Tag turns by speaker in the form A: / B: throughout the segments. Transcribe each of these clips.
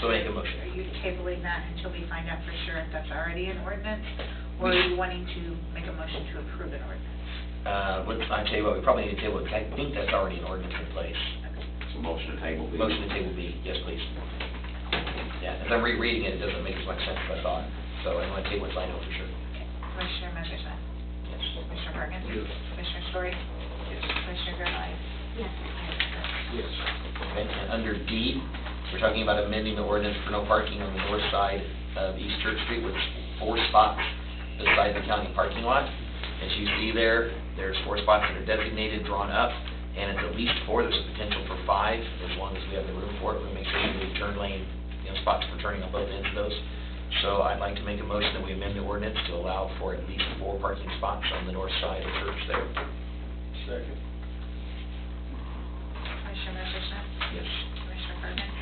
A: So make a motion.
B: Are you tabling that until we find out for sure if that's already an ordinance? Or are you wanting to make a motion to approve an ordinance?
A: Uh, what, I tell you what, we probably need to deal with, I think that's already an ordinance in place.
C: It's a motion to table. please.
A: Motion to table B, yes, please. Yeah, as I'm rereading it, it doesn't make as much sense as I thought, so I want to table it, so I know for sure.
B: Okay. Commissioner Merschman?
A: Yes.
B: Commissioner Perkins?
A: Yes.
B: Commissioner Story? Commissioner Gervail?
A: Yes. Okay, and under D, we're talking about amending the ordinance for no parking on the north side of East Church Street with four spots beside the county parking lot. As you see there, there's four spots that are designated, drawn up, and it's at least four, there's a potential for five, as long as we have the room for it, we make sure we leave turn lane, you know, spots for turning on both ends of those. So I'd like to make a motion that we amend the ordinance to allow for at least four parking spots on the north side of Church there.
D: Second.
B: Commissioner Merschman?
A: Yes.
B: Commissioner Perkins?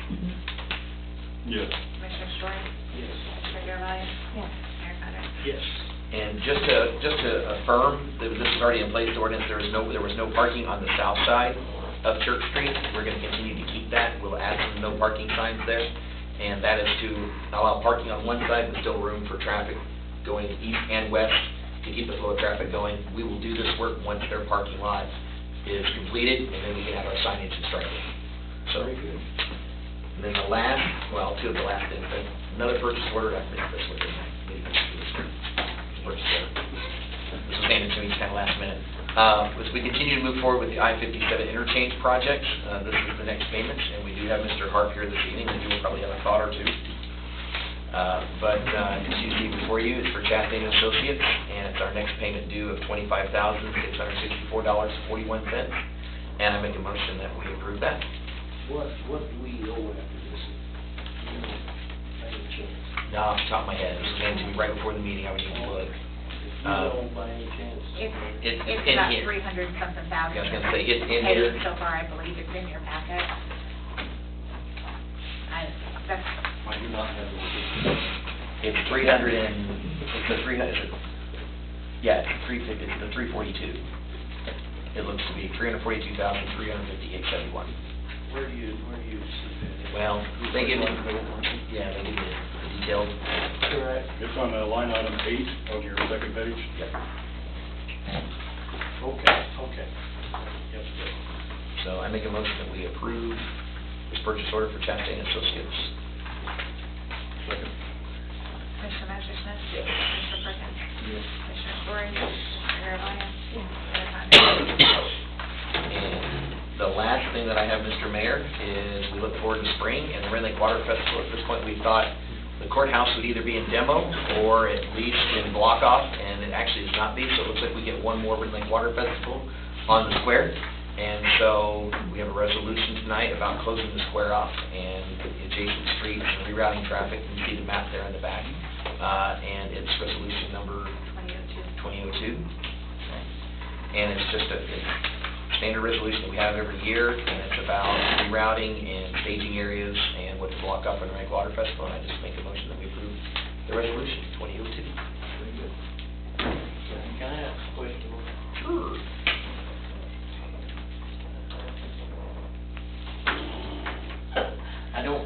D: Yes.
B: Commissioner Story?
D: Yes.
B: Commissioner Gervail?
E: Yes.
B: Mayor Condon?
D: Yes.
A: And just to, just to affirm, that this is already in place, the ordinance, there is no, there was no parking on the south side of Church Street. We're going to continue to keep that. We'll add some no parking signs there. And that is to allow parking on one side, but still room for traffic going east and west to keep the flow of traffic going. We will do this work once their parking lot is completed, and then we can have our signage instructed. So,
D: Very good.
A: and then the last, well, two of the last things, but another purchase order, I missed this one, didn't I? Maybe I should do this one. Purchase order. This was handed to me kind of last minute. Uh, As we continue to move forward with the I-57 interchange project, uh, this is the next payment, and we do have Mr. Harp here this evening, and he will probably have a thought or two. Uh, But uh, as you see before you, it's for Chastain and Associates, and it's our next payment due of $25,664.41. And I make a motion that we approve that.
D: What, what do we owe after this? You know, by any chance?
A: No, off the top of my head, it was came to me right before the meeting, I would need to
D: If
A: look.
D: you
A: Uh,
D: know by any chance. uh,
B: It's,
A: It's
B: it's
A: in
B: about
A: here.
B: three hundred and something
A: I
B: thousand.
A: was gonna say, it's in
B: paid
A: here.
B: So far, I believe it's in your packet. I, that's,
D: I do not have the.
A: It's three hundred and, it's the three hundred, yeah, it's three fifty, it's the three forty-two. It looks to be three hundred forty-two thousand, three hundred fifty-eight seventy-one.
D: Where do you, where do you see that?
A: Well, they give me,
D: Correct.
A: yeah, they give me the details.
F: It's on uh, line item eight on your second page.
D: Okay, okay. Yes, sir.
A: So I make a motion that we approve this purchase order for Chastain and Associates.
F: Second.
B: Commissioner Merschman?
A: Yes.
B: Commissioner Perkins?
F: Yes.
B: Commissioner Story? Commissioner Gervail?
E: Yes.
B: Mayor Condon?
A: And the last thing that I have, Mr. Mayor, is we look forward to spring and the Red Lake Water Festival. At this point, we thought the courthouse would either be in demo or at least in block off, and it actually is not be, so it looks like we get one more Red Lake Water Festival on the square. And so we have a resolution tonight about closing the square off and the adjacent streets and rerouting traffic. You see the map there in the back. Uh, And it's resolution number
B: Twenty oh two.
A: 2002. And it's just a it's standard resolution that we have every year, and it's about rerouting and staging areas and what to block up in Rank Water Festival, and I just make a motion that we approve the resolution 2002.
D: Very good. Can I ask a question?
A: Sure.
D: I don't,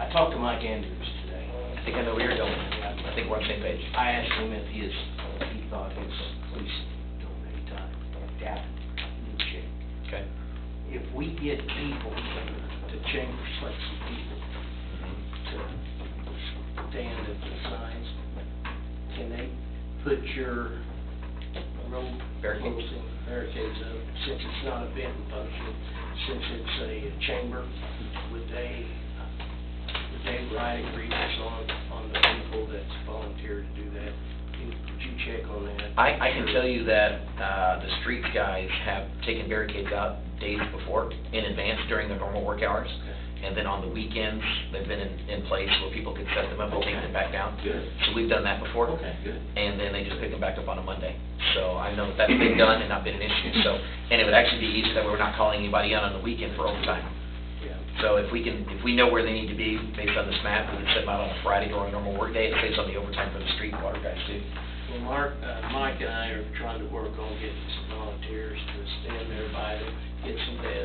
D: I talked to Mike Andrews today.
A: I think I know where you're going. I think we're on the same page.
D: I asked him if his, he thought his police donate time, that, new check.
A: Okay.
D: If we get people, the chamber selects some people to stand at the signs, can they put your road
A: Barricades.
D: closing barricades up? Since it's not a bid and function, since it's a chamber, would they, would they write agreements on, on the people that volunteer to do that? Could you check on that?
A: I, I can tell you that uh, the street guys have taken barricades out days before, in advance during their normal work hours. And then on the weekends, they've been in, in place where people could set them up and take them back down.
D: Good.
A: So we've done that before.
D: Okay, good.
A: And then they just pick them back up on a Monday. So I know that that's been done and not been an issue, so, and it would actually be easier that we're not calling anybody out on the weekend for overtime.
D: Yeah.
A: So if we can, if we know where they need to be based on this map, we can set them out on a Friday or a normal work day, it saves on the overtime for the street and water guys too.
D: Well, Mark, uh, Mike and I are trying to work on getting some volunteers to stand there by to get some desks